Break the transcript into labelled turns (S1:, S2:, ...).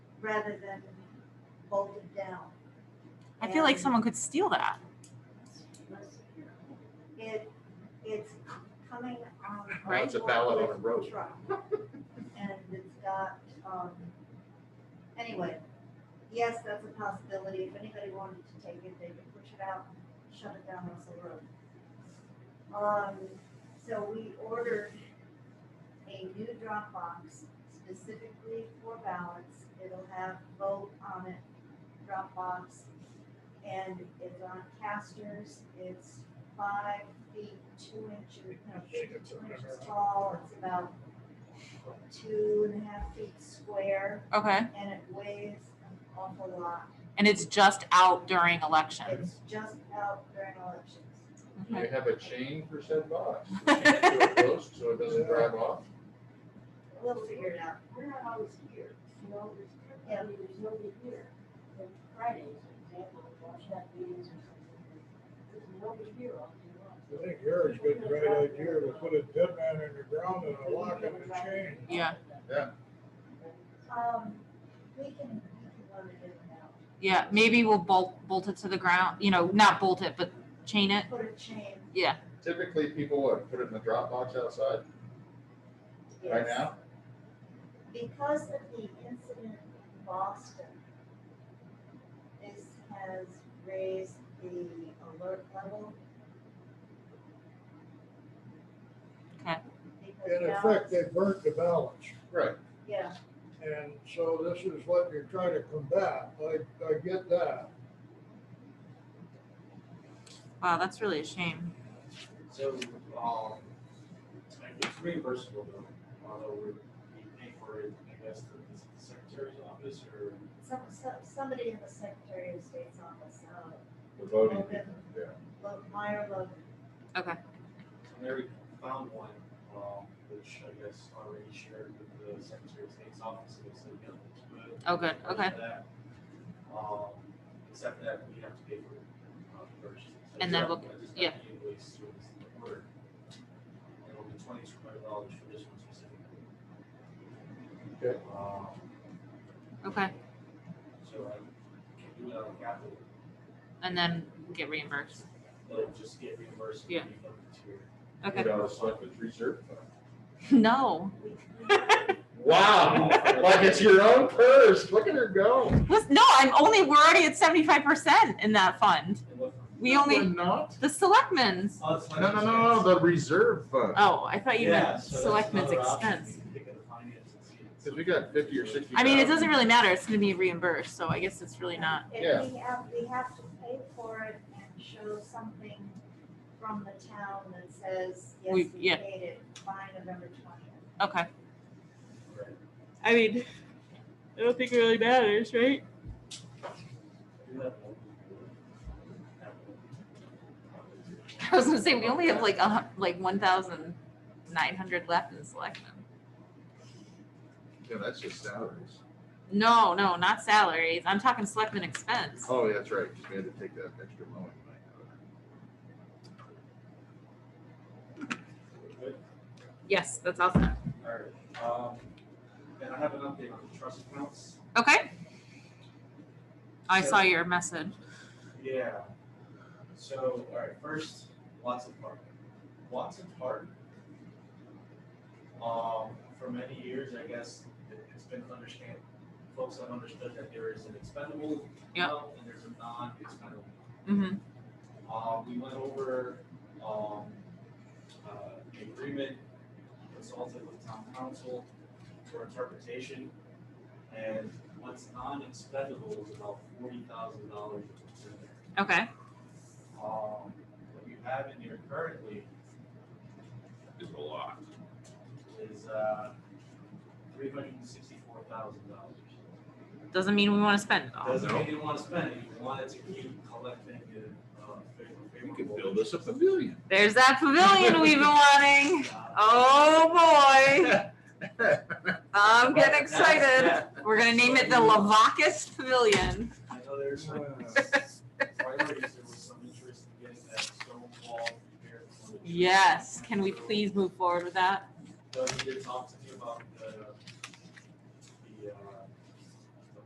S1: rather than bolted down.
S2: I feel like
S1: And-
S2: someone could steal that.
S1: It, it's coming on.
S2: Right.
S3: It's a ballad on a rope.
S1: truck. And it's got, um, anyway, yes, that's a possibility. If anybody wanted to take it, they could push it out, and shut it down Russell Road. Um, so we ordered a new drop box specifically for ballots. It'll have vote on it, drop box, And it's on casters. It's five feet, two inches, no, two inches tall. It's about two and a half feet square
S2: Okay.
S1: and it weighs an awful lot.
S2: And it's just out during elections.
S1: It's just out during elections.
S3: Do you have a chain for said box?
S2: Okay.
S3: To a post So it doesn't drive off?
S1: We'll figure it out.
S4: We're not always here, you know, there's, I mean, there's nobody here. Like Fridays, for example, watch that meetings or something. There's nobody here all day long.
S5: I think Eric's got the right idea to put a dead man in the ground and a lock and a chain.
S2: Yeah.
S1: Um, we can, we can run it in and out.
S2: Yeah. Maybe we'll bolt bolt it to the ground. You know, not bolt it, but chain it.
S1: Put a chain.
S2: Yeah.
S3: Typically, people would put it in the drop box outside right
S1: yes.
S3: now.
S1: Because of the incident in Boston, this has raised the alert level.
S2: Okay.
S1: Because
S5: In
S1: now
S5: effect,
S1: it's-
S5: they burnt the ballots.
S3: Right.
S1: Yeah,
S5: And so this is what you're trying to combat. I, I get that.
S2: Wow, that's really a shame.
S6: So, um, it's reimbursable though, although we're, we pay for it, I guess, through the secretary's office or.
S1: some, some, somebody in the Secretary of State's office, uh,
S3: The voting
S1: Okay.
S3: people, yeah.
S1: Lo- Meyer Logan.
S6: And there we found one, um, which I guess already shared with the secretary of state's office, and they said, yeah, let's do it.
S2: Oh, good.
S6: For
S2: Okay.
S6: that. Um, except for that, we have to pay for, uh, first. So
S2: And then
S6: yeah,
S2: we'll-
S6: I just got
S2: yeah.
S6: the Invoice through the word. It'll be twenty-two hundred dollars for this one specifically.
S3: Okay.
S6: Um,
S2: Okay.
S6: So I can do it on capital,
S2: And then get reimbursed.
S6: it'll just get reimbursed.
S2: Yeah.
S6: when you go to your-
S2: Okay.
S3: You know, it's like the reserve fund.
S2: No.
S1: We- we-
S3: Wow, like it's your own purse. Look at her go.
S2: Listen, no, I'm only we're already at 75% in that fund.
S6: And what-
S2: We
S3: No,
S2: only-
S3: we're not.
S2: The selectmen's.
S6: Oh, it's
S3: No, no, no, no, the reserve fund.
S2: Oh, I thought you
S6: Yeah,
S2: meant
S6: so that's
S2: selectmen's
S6: another option.
S2: expense.
S6: You can pick up the finance and see it.
S3: Cause we got fifty or sixty.
S2: I mean, it
S3: thousand.
S2: doesn't really matter. It's going to be reimbursed, so I guess it's really not.
S3: Yeah.
S1: And we have, we have to pay for it and show something from the town that says, yes, we
S2: We- yeah.
S1: paid it by November twentieth.
S2: Okay.
S6: Right.
S2: I mean, I don't think it really matters, right?
S6: We do have one. That
S2: I was gonna say we only have like a, hun- like one thousand nine hundred left in selection.
S3: Yeah, that's just salaries.
S2: No, no, not salaries. I'm talking selectmen expense.
S3: Oh, yeah, that's right, 'cause we had to take that extra mowing money out of it.
S6: one. Good.
S2: Yes, that's awesome.
S6: All right, um, and I have an update on the trust accounts.
S2: Okay. I saw your message.
S6: Yeah. So, all right, first, Watson Park. Watson Park, um, for many years, I guess, it- it's been understand, folks have understood that there is an expendable
S2: Yeah.
S6: amount and there's a non-expendable.
S2: Mm-hmm.
S6: Um, we went over, um, uh, the agreement, consulted with town council for interpretation. And what's non-expendable is about forty thousand dollars in there
S2: Okay.
S6: um, what you have in here currently
S3: Is a lot.
S6: is, uh, three hundred and sixty-four thousand dollars.
S2: Doesn't mean we want to spend it
S3: Ah,
S2: all.
S6: Doesn't mean you want to spend it, you wanted to keep collecting it, uh, favorable.
S3: You could build us a pavilion.
S2: There's that pavilion we've been wanting.
S6: Uh,
S2: Oh boy,
S3: That's
S2: I'm getting
S6: but that's-
S2: excited.
S6: that-
S2: We're gonna name it the Lavacus Pavilion.
S6: I know there's some priorities, there was some interest in getting that stone wall repaired.
S2: Yes. Can we please move forward with that?
S6: Doug did talk to me about uh,